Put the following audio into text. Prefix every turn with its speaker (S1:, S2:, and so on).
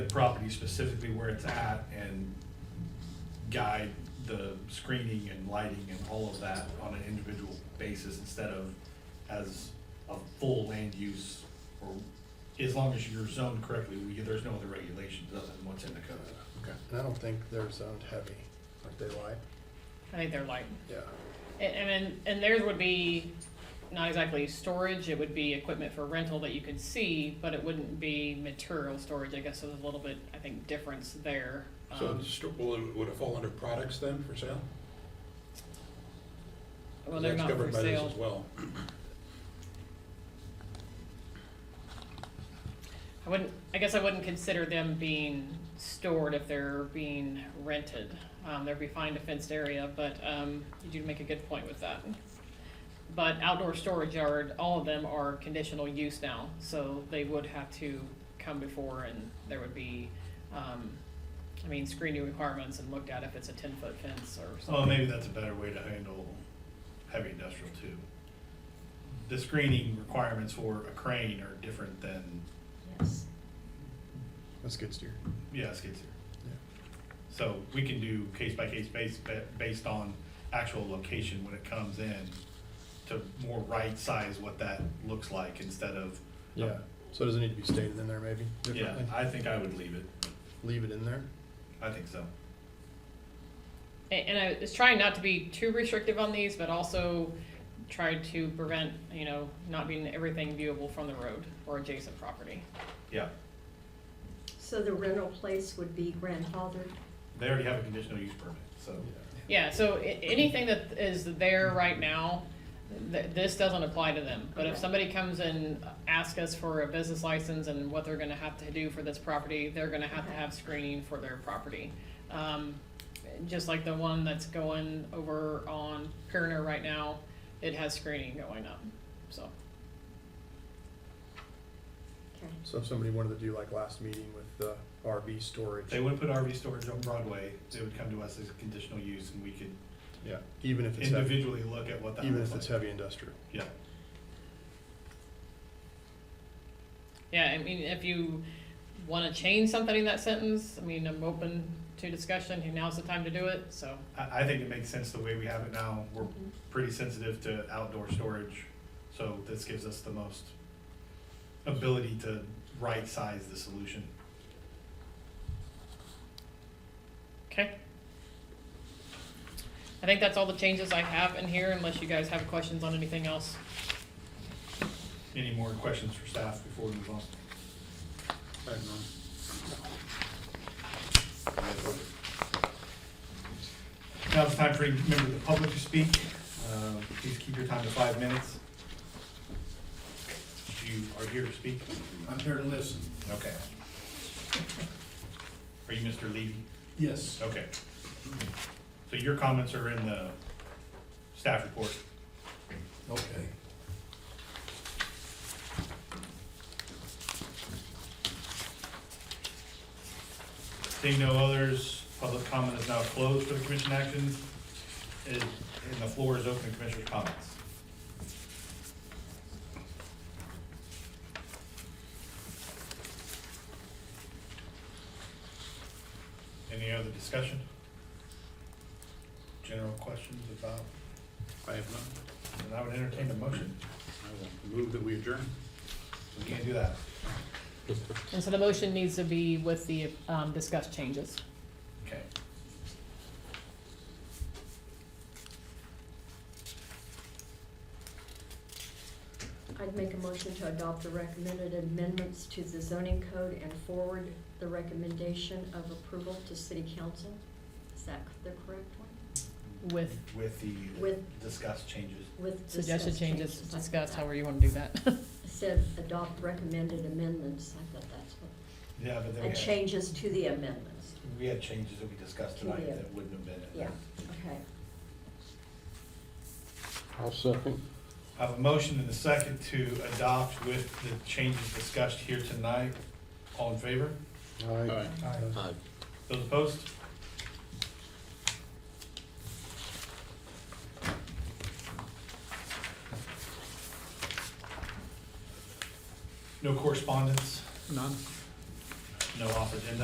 S1: the property specifically where it's at and guide the screening and lighting and all of that on an individual basis instead of as a full land use or as long as you're zoned correctly, we, there's no other regulations other than what's in the code.
S2: Okay, and I don't think they're zoned heavy, aren't they light?
S3: I think they're light.
S2: Yeah,
S3: And, and, then- and theirs would be not exactly storage, it would be equipment for rental that you could see, but it wouldn't be material storage, I guess, so there's a little bit, I think, difference there.
S4: So,
S3: Um,
S4: it's st- will it, Uh, would it fall under products then for sale?
S3: Well, they're
S4: That's
S3: not for
S4: covered by this
S3: sale.
S4: As well.
S3: I wouldn't, I guess I wouldn't consider them being stored if they're being rented. Um, they'd be fine to fenced area, but, um, you do make a good point with that. But outdoor storage yard, all of them are conditional use now, so they would have to come before and there would be, um, I mean, screening requirements and looked at if it's a ten-foot fence or
S1: Oh,
S3: something.
S1: maybe that's a better way to handle heavy industrial too. The screening requirements for a crane are different than,
S5: Yes.
S2: that's good steer.
S1: yeah, skid steer.
S2: Yeah.
S1: So we can do case by case base, ba- based on actual location when it comes in to more right size what that looks like instead of.
S2: Yeah, so does it need to be stated in there maybe
S1: Yeah,
S2: differently?
S1: I think I would leave it.
S2: Leave it in there?
S1: I think so.
S3: A- And I was trying not to be too restrictive on these, but also tried to prevent, you know, not being everything viewable from the road or adjacent property.
S1: Yeah,
S5: So the rental place would be grandfathered?
S1: they already have a conditional use permit, so.
S3: Yeah, so i- anything that is there right now, th- this doesn't apply to them. But if
S5: Okay.
S3: somebody comes and asks us for a business license and what they're gonna have to do for this property, they're gonna have to
S5: Okay.
S3: have screening for their property. Um, just like the one that's going over on Kerner right now, it has screening going up, so.
S5: Okay.
S2: So if somebody wanted to do like last meeting with the RV storage,
S1: They would put RV storage on Broadway, they would come to us as a conditional use and we could
S2: yeah, even if it's heavy,
S1: individually look at what that
S2: even
S1: looks
S2: if
S1: like.
S2: it's heavy industrial.
S1: Yeah,
S3: Yeah, I mean, if you wanna change something in that sentence, I mean, I'm open to discussion, now's the time to do it, so.
S1: I, I think it makes sense the way we have it now. We're pretty sensitive to outdoor storage, so this gives us the most ability to right-size the solution.
S3: Okay. I think that's all the changes I have in here unless you guys have questions on anything else.
S1: Any more questions for staff before we move on?
S4: I don't know.
S1: Now it's time for any member of the public to speak. Uh, Please keep your time to five minutes. You are here to speak?
S6: I'm here to listen.
S1: Okay. Are you Mr. Levy?
S6: Yes.
S1: Okay. So your comments are in the staff report.
S6: Okay.
S1: Seeing no others, public comment is now closed for the commission actions. Is- And the floor is open to commissioners' comments. Any other discussion? General questions about,
S4: I have none.
S1: and I would entertain a motion.
S4: I will move that we adjourn.
S1: We can't do that.
S3: And so the motion needs to be with the um, discussed changes.
S1: Okay.
S5: I'd make a motion to adopt the recommended amendments to the zoning code and forward the recommendation of approval to city council. Is that the correct one?
S3: With-
S1: With the
S5: With-
S1: discussed changes.
S5: With
S3: Suggested
S5: discussed
S3: changes
S5: I thought
S3: discussed,
S5: that-
S3: however you want to do that.
S5: It Said adopt recommended amendments, I thought that's what,
S1: Yeah, but then we
S5: and
S1: had,
S5: changes to the amendments.
S1: we had changes that we discussed
S5: To the-
S1: tonight that wouldn't have been in there.
S5: Yeah, okay.
S7: I'll second.
S1: I have a motion and a second to adopt with the changes discussed here tonight. All in favor?
S7: Aye.
S4: Aye.
S7: Aye.
S1: Those opposed? No correspondence?
S4: None.
S1: no off agenda